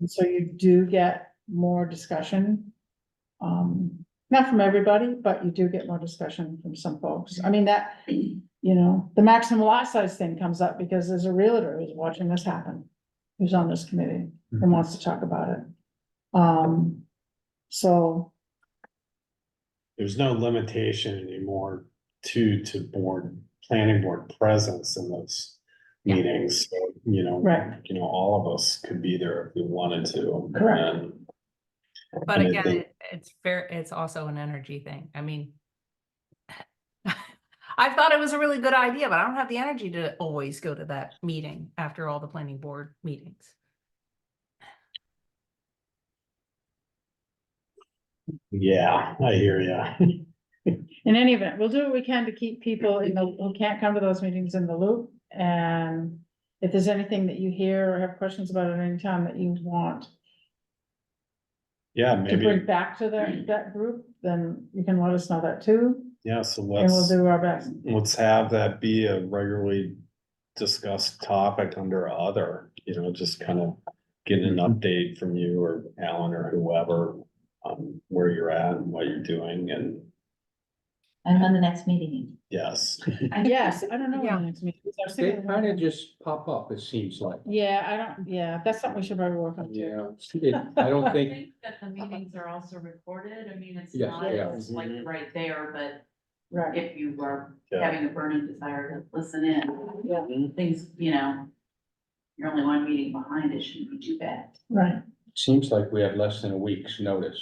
And so you do get more discussion. Um, not from everybody, but you do get more discussion from some folks. I mean, that, you know, the maximum lot size thing comes up because there's a realtor who's watching this happen. Who's on this committee and wants to talk about it. Um, so, There's no limitation anymore to, to board, planning board presence in those Yeah. meetings, So, you know. Right. You know, all of us could be there if we wanted to. Correct. and- But and I again, think- it- it's fair, it's also an energy thing. I mean. I thought it was a really good idea, but I don't have the energy to always go to that meeting after all the planning board meetings. Yeah, I hear you. in any event, we'll do what we can to keep people in the, who can't come to those meetings in the loop. And if there's anything that you hear or have questions about at any time that you want Yeah, to bring maybe, back to that, that group, then you can let us know that too, yeah, so and we'll let's, do our best. let's have that be a regularly discussed topic under other, you know, just kind of getting an Mm-hmm. update from you or Alan or whoever on where you're at and what you're doing and And when the next meeting. yes, Yes, I don't know when Yeah. the next meeting is. I was They thinking about kind of that. just pop up, it seems like. Yeah, I don't, yeah, that's something we should probably work on too. Yeah, it- I don't I think, think that the meetings are also recorded, I mean, it's Yes, not yeah. just like right there, but Right, if you were yeah. having a burning desire to listen in, yeah, things, you know. You're only one meeting behind, it shouldn't be too bad. right. seems like we have less than a week's notice.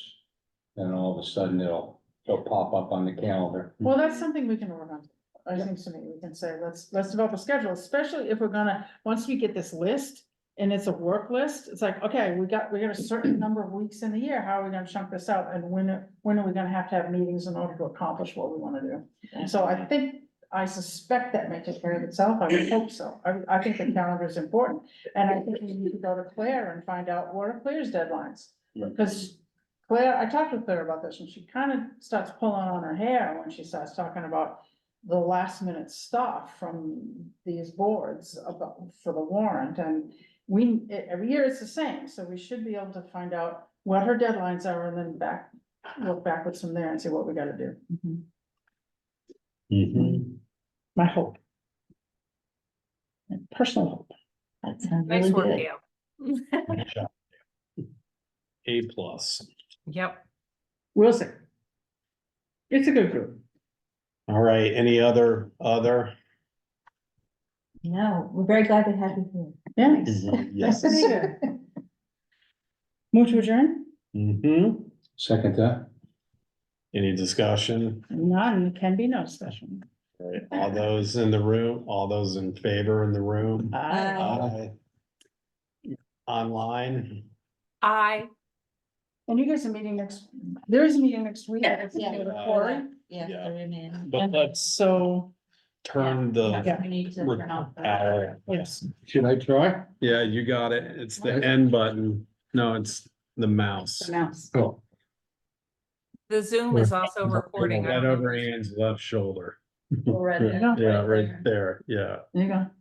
And all of a sudden it'll, it'll pop up on the calendar. Well, that's something we can work on. I think something we can say, let's, let's develop a schedule, especially if we're gonna, once we get this list and it's a work list, it's like, okay, we got, we got a certain number of weeks in the year, how are we gonna chunk this out? And when, are- when are we gonna have to have meetings in order to accomplish what we wanna do? So I think, I suspect that may take care of itself, I would hope so, I, I think the calendar is important, and I think we need to go to Claire and find out what are Claire's deadlines? Right. Cause Claire, I talked with Claire about this, and she kind of starts pulling on her hair when she starts talking about the last minute stuff from these boards about, for the warrant, and we, e- every year it's the same, so we should be able to find out what her deadlines are, and then back, look backwards from there and see what we gotta do, Mhm. my hope. My Personal hope. That sounds Nice really work, good. Gail. A plus. Yep. We'll see. It's a good group. All right, any other, other? No, we're very glad to have you here. Yeah. Yes. Move to adjourn? Mm-hmm. Second that? Any discussion? None, can be no discussion. Uh, All right, All those in the room, all those in favor in the room? Aye. Aye. Online? I, And you guys are meeting next, there is a meeting next week. Yeah. It's gonna go to Yeah. Cory. Yeah, Yeah. the remand. But let's uh, So, turn Yeah. the. We need to. turn off the- Our- yes, Should I try? Yeah, you got it. It's the end button. No, it's the mouse. announce. Oh, the Zoom is also recording. I Right don't know. over Anne's left shoulder. We're at the- Yeah, right there. Yeah. There you go.